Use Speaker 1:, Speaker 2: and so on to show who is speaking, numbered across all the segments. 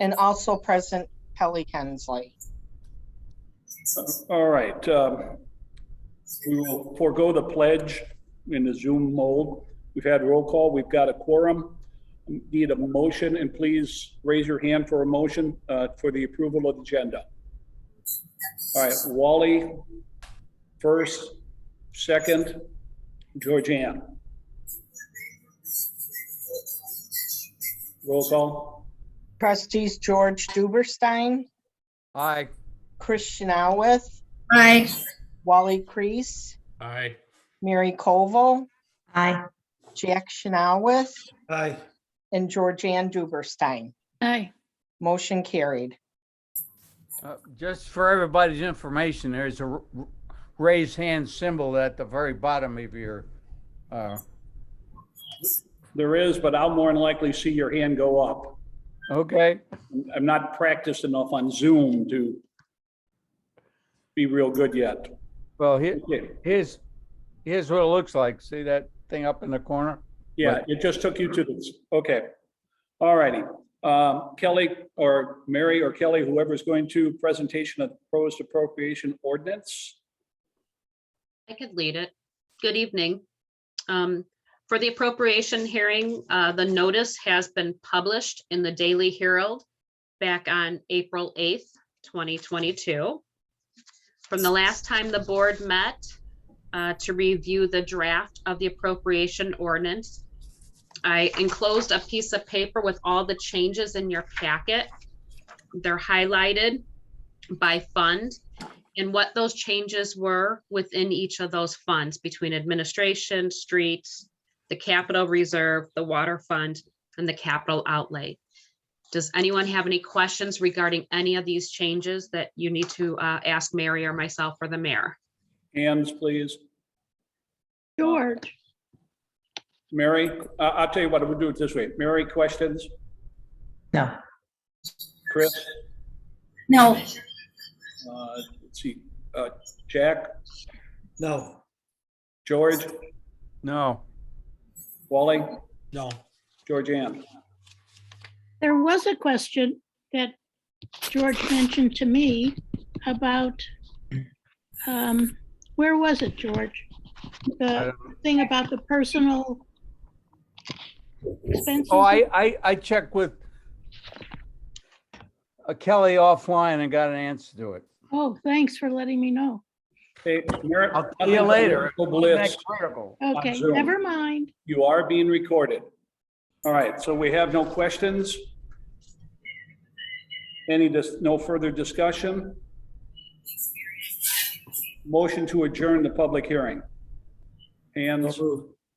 Speaker 1: and also present Kelly Kensley.
Speaker 2: All right, um, we will forego the pledge in the Zoom mode. We've had roll call, we've got a quorum. Need a motion, and please raise your hand for a motion uh, for the approval of the agenda. All right, Wally, first, second, Georgianne. Roll call,
Speaker 1: Trustees George Duberstein,
Speaker 3: Aye.
Speaker 1: Christian Alweth,
Speaker 4: Aye.
Speaker 1: Wally Crease,
Speaker 3: Aye.
Speaker 1: Mary Koval,
Speaker 4: Aye.
Speaker 1: Jack Chanelwith,
Speaker 3: Aye.
Speaker 1: and Georgianne Duberstein.
Speaker 4: Aye.
Speaker 1: Motion carried.
Speaker 3: uh, Just for everybody's information, there's a r- r- raise hand symbol at the very bottom of your, uh,
Speaker 2: there is, but I'll more than likely see your hand go up.
Speaker 3: okay,
Speaker 2: I'm not practiced enough on Zoom to be real good yet.
Speaker 3: well, here,
Speaker 2: Okay.
Speaker 3: here's, here's what it looks like. See that thing up in the corner?
Speaker 2: Yeah, it just took you to this. Okay. All righty. Um, Kelly or Mary or Kelly, whoever's going to presentation of proposed appropriation ordinance.
Speaker 5: I could lead it. Good evening. Um, For the appropriation hearing, uh, the notice has been published in the Daily Herald back on April 8th, 2022. From the last time the board met uh, to review the draft of the appropriation ordinance, I enclosed a piece of paper with all the changes in your packet. They're highlighted by fund and what those changes were within each of those funds between administration, streets, the capital reserve, the water fund, and the capital outlay. Does anyone have any questions regarding any of these changes that you need to uh, ask Mary or myself or the mayor?
Speaker 2: Hands, please.
Speaker 4: George.
Speaker 2: Mary, I, I'll tell you what, we'll do it this way. Mary, questions?
Speaker 4: No.
Speaker 2: Chris,
Speaker 4: No.
Speaker 2: uh, let's see, uh, Jack,
Speaker 6: No,
Speaker 2: George,
Speaker 3: No.
Speaker 2: Wally,
Speaker 6: no.
Speaker 2: Georgianne.
Speaker 7: There was a question that George mentioned to me about, um, where was it, George?
Speaker 3: I
Speaker 7: The thing about the personal expenses.
Speaker 3: Oh, I, I, I checked with uh, Kelly offline and got an answer to it.
Speaker 7: Oh, thanks for letting me know.
Speaker 2: Hey, Mary.
Speaker 3: I'll see you later.
Speaker 2: Go
Speaker 3: Isn't
Speaker 2: Blitz.
Speaker 3: that critical?
Speaker 7: Okay,
Speaker 2: Zoom.
Speaker 7: never mind.
Speaker 2: You are being recorded. All right, so we have no questions? Any, dis- no further discussion? Motion to adjourn the public hearing. Hands,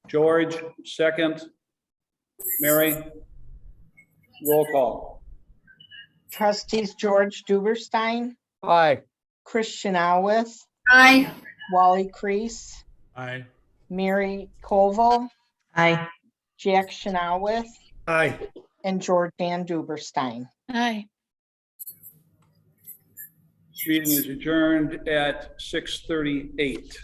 Speaker 2: George, second. Mary? Roll call.
Speaker 1: Trustees George Duberstein,
Speaker 3: Aye.
Speaker 1: Christian Alweth,
Speaker 4: Aye.
Speaker 1: Wally Crease,
Speaker 6: Aye.
Speaker 1: Mary Koval,
Speaker 4: Aye.
Speaker 1: Jack Chanelwith,
Speaker 6: Aye.
Speaker 1: and Georgianne Duberstein.
Speaker 7: Aye.
Speaker 2: Meeting is adjourned at 6:38.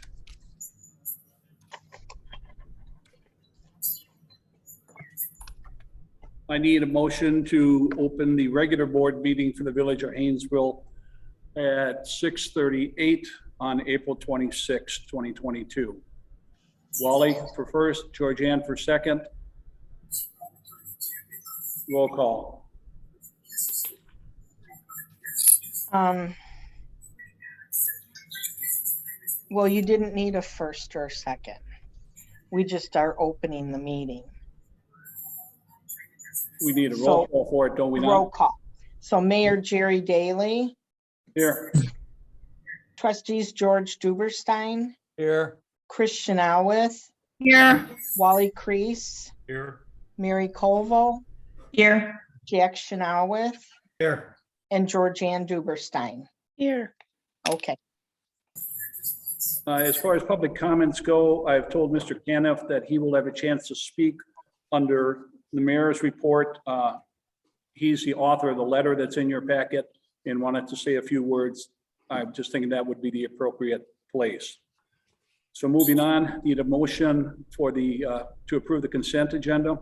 Speaker 2: I need a motion to open the regular board meeting for the Village of Haynesville at 6:38 on April 26, 2022. Wally for first, Georgianne for second. Roll call.
Speaker 1: Um, well, you didn't need a first or a second. We just are opening the meeting.
Speaker 2: We need a roll
Speaker 1: So-
Speaker 2: call for it, don't we
Speaker 1: Roll
Speaker 2: not?
Speaker 1: call. So Mayor Jerry Daly,
Speaker 2: Here,
Speaker 1: trustees George Duberstein,
Speaker 3: Here.
Speaker 1: Christian Alweth,
Speaker 4: Here.
Speaker 1: Wally Crease,
Speaker 6: Here.
Speaker 1: Mary Koval,
Speaker 4: Here.
Speaker 1: Jack Chanelwith,
Speaker 6: Here.
Speaker 1: and Georgianne Duberstein.
Speaker 7: Here.
Speaker 1: Okay,
Speaker 2: Uh, As far as public comments go, I've told Mr. Caniff that he will have a chance to speak under the mayor's report. Uh, He's the author of the letter that's in your packet and wanted to say a few words. I'm just thinking that would be the appropriate place. So moving on, need a motion for the, uh, to approve the consent agenda.